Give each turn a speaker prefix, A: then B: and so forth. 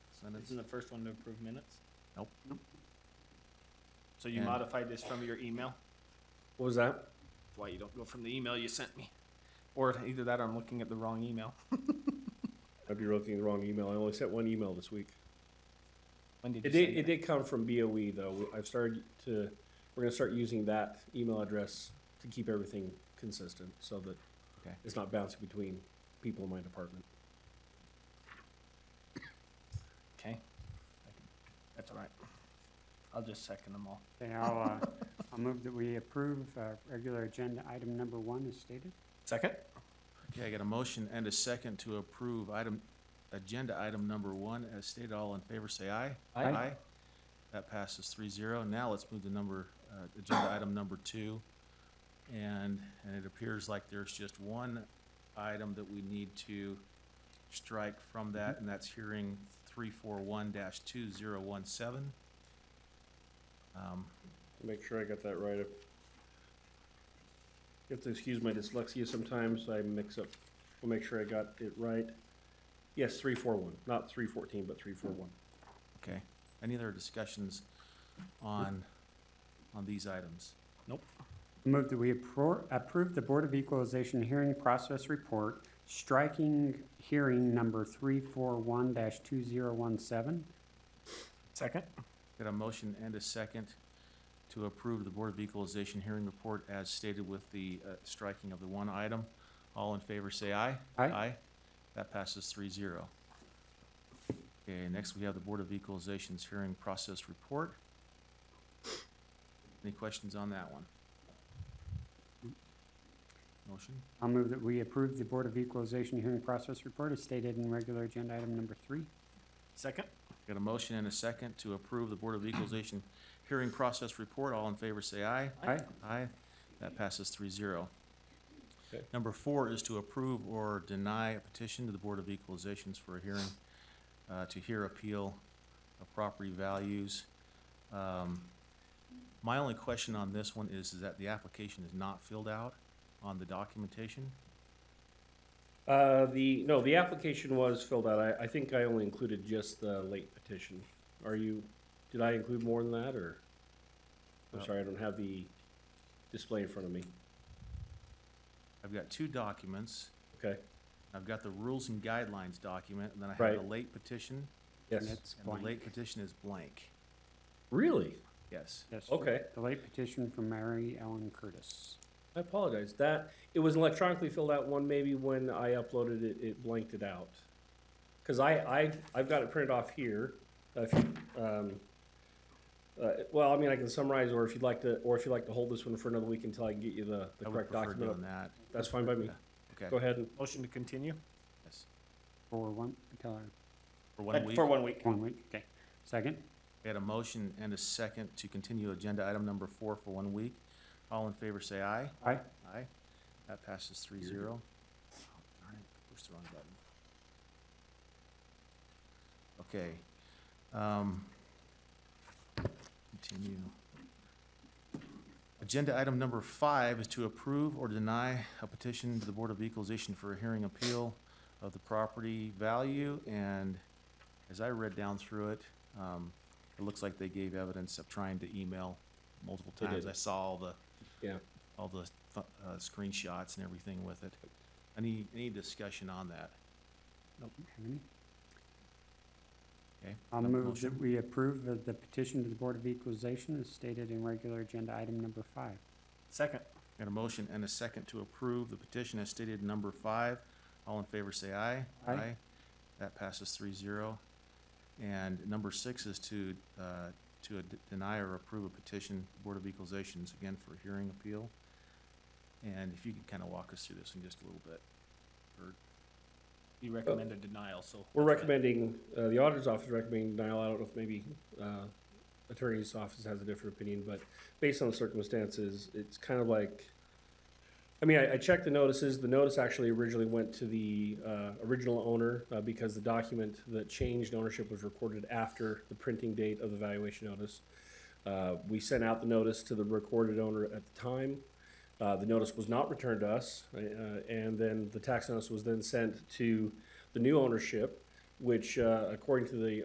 A: minutes.
B: Isn't the first one to approve minutes?
A: Nope.
B: So you
A: And-
B: modified this from your email?
C: What was that?
B: That's why you don't go from the email you sent me. Or either that or I'm looking at the wrong email.
C: I'd be looking at the wrong email. I only sent one email this week.
B: When did
C: It
B: you
C: did,
B: send
C: it
B: it?
C: did come from BOE though. I've started to, we're gonna start using that email address to keep everything consistent so that
A: Okay.
C: it's not bouncing between people in my department.
B: Okay. That's all right. I'll just second them all.
D: Okay, I'll, uh, I'll move that we approve uh, regular agenda item number one as stated.
B: Second?
A: Okay, I got a motion and a second to approve item, agenda item number one. As stated, all in favor, say aye.
B: Aye. Aye.
A: That passes three zero. Now let's move to number, uh, agenda item number two. And, and it appears like there's just one item that we need to strike from that, and that's hearing three four one dash two zero one seven. Um,
C: Make sure I got that right. You have to excuse my dyslexia sometimes. I mix up. We'll make sure I got it right. Yes, three, four, one, not three fourteen, but three, four, one.
A: okay. Any other discussions on, on these items?
D: Move that we appro- approve the Board of Equalization hearing process report, striking hearing number three four one two zero one seven.
B: Second?
A: Got a motion and a second to approve the Board of Equalization hearing report as stated with the uh, striking of the one item. All in favor, say aye.
D: Aye.
A: That passes 3-0. Okay, next we have the Board of Equalization's hearing process report. Any questions on that one? Motion?
D: I'll move that we approve the Board of Equalization hearing process report as stated in regular agenda item number three.
B: Second?
A: Got a motion and a second to approve the Board of Equalization hearing process report. All in favor, say aye.
D: Aye.
A: Aye, that passes three zero.
C: Okay.
A: Number four is to approve or deny a petition to the Board of Equalizations for a hearing, uh, to hear appeal of property values. Um, My only question on this one is that the application is not filled out on the documentation.
C: Uh, the, no, the application was filled out. I, I think I only included just the late petition. Are you, did I include more than that or? I'm
A: Uh,
C: sorry, I don't have the display in front of me.
A: I've got two documents.
C: Okay,
A: I've got the rules and guidelines document, and then I have the
C: Right.
A: late petition,
D: And
C: yes.
D: it's
A: and the late
D: blank.
A: petition is blank.
C: Really?
A: Yes.
D: Yes, sir.
C: Okay,
D: The late petition from Mary Ellen Curtis.
C: I apologize. That, it was electronically filled out one, maybe when I uploaded it, it blanked it out. Cause I, I, I've got it printed off here. Uh, If, you- um, uh, well, I mean, I can summarize or if you'd like to, or if you'd like to hold this one for another week until I can get you the, the
A: I would
C: correct
A: prefer
C: document.
A: doing that.
C: That's fine by me. Go
A: Okay.
C: ahead and
B: Motion to continue?
A: Yes.
D: For one, until our-
A: For one
B: Uh,
A: week.
B: For one week.
D: one week, okay. Second?
A: We had a motion and a second to continue agenda item number four for one week. All in favor, say aye.
D: Aye.
A: Aye. That passes three zero. Darn it, pushed the wrong button. Okay. um, Continue. Agenda item number five is to approve or deny a petition to the Board of Equalization for a hearing appeal of the property value. And as I read down through it, um, it looks like they gave evidence of trying to email multiple
C: They
A: times.
C: did.
A: I saw all the
C: Yeah,
A: all the fu- uh, screenshots and everything with it. Any, any discussion on that?
D: Nope, have any?
A: Okay?
D: I'll
A: Have a
D: move
A: motion?
D: that we approve of the petition to the Board of Equalization as stated in regular agenda item number five.
B: Second?
A: Got a motion and a second to approve the petition as stated in number five. All in favor, say aye.
D: Aye.
A: That passes three zero. And number six is to, uh, to d- deny or approve a petition, Board of Equalizations, again, for hearing appeal. And if you could kind of walk us through this in just a little bit. Bert.
B: You recommend a denial, so.
C: we're recommending, uh, the auditor's office is recommending denial. I don't know if maybe, uh, attorney's office has a different opinion, but based on the circumstances, it's kind of like, I mean, I, I checked the notices. The notice actually originally went to the, uh, original owner, uh, because the document that changed ownership was recorded after the printing date of the valuation notice. Uh, we sent out the notice to the recorded owner at the time. Uh, the notice was not returned to us, uh, and then the tax notice was then sent to the new ownership, which, uh, according to the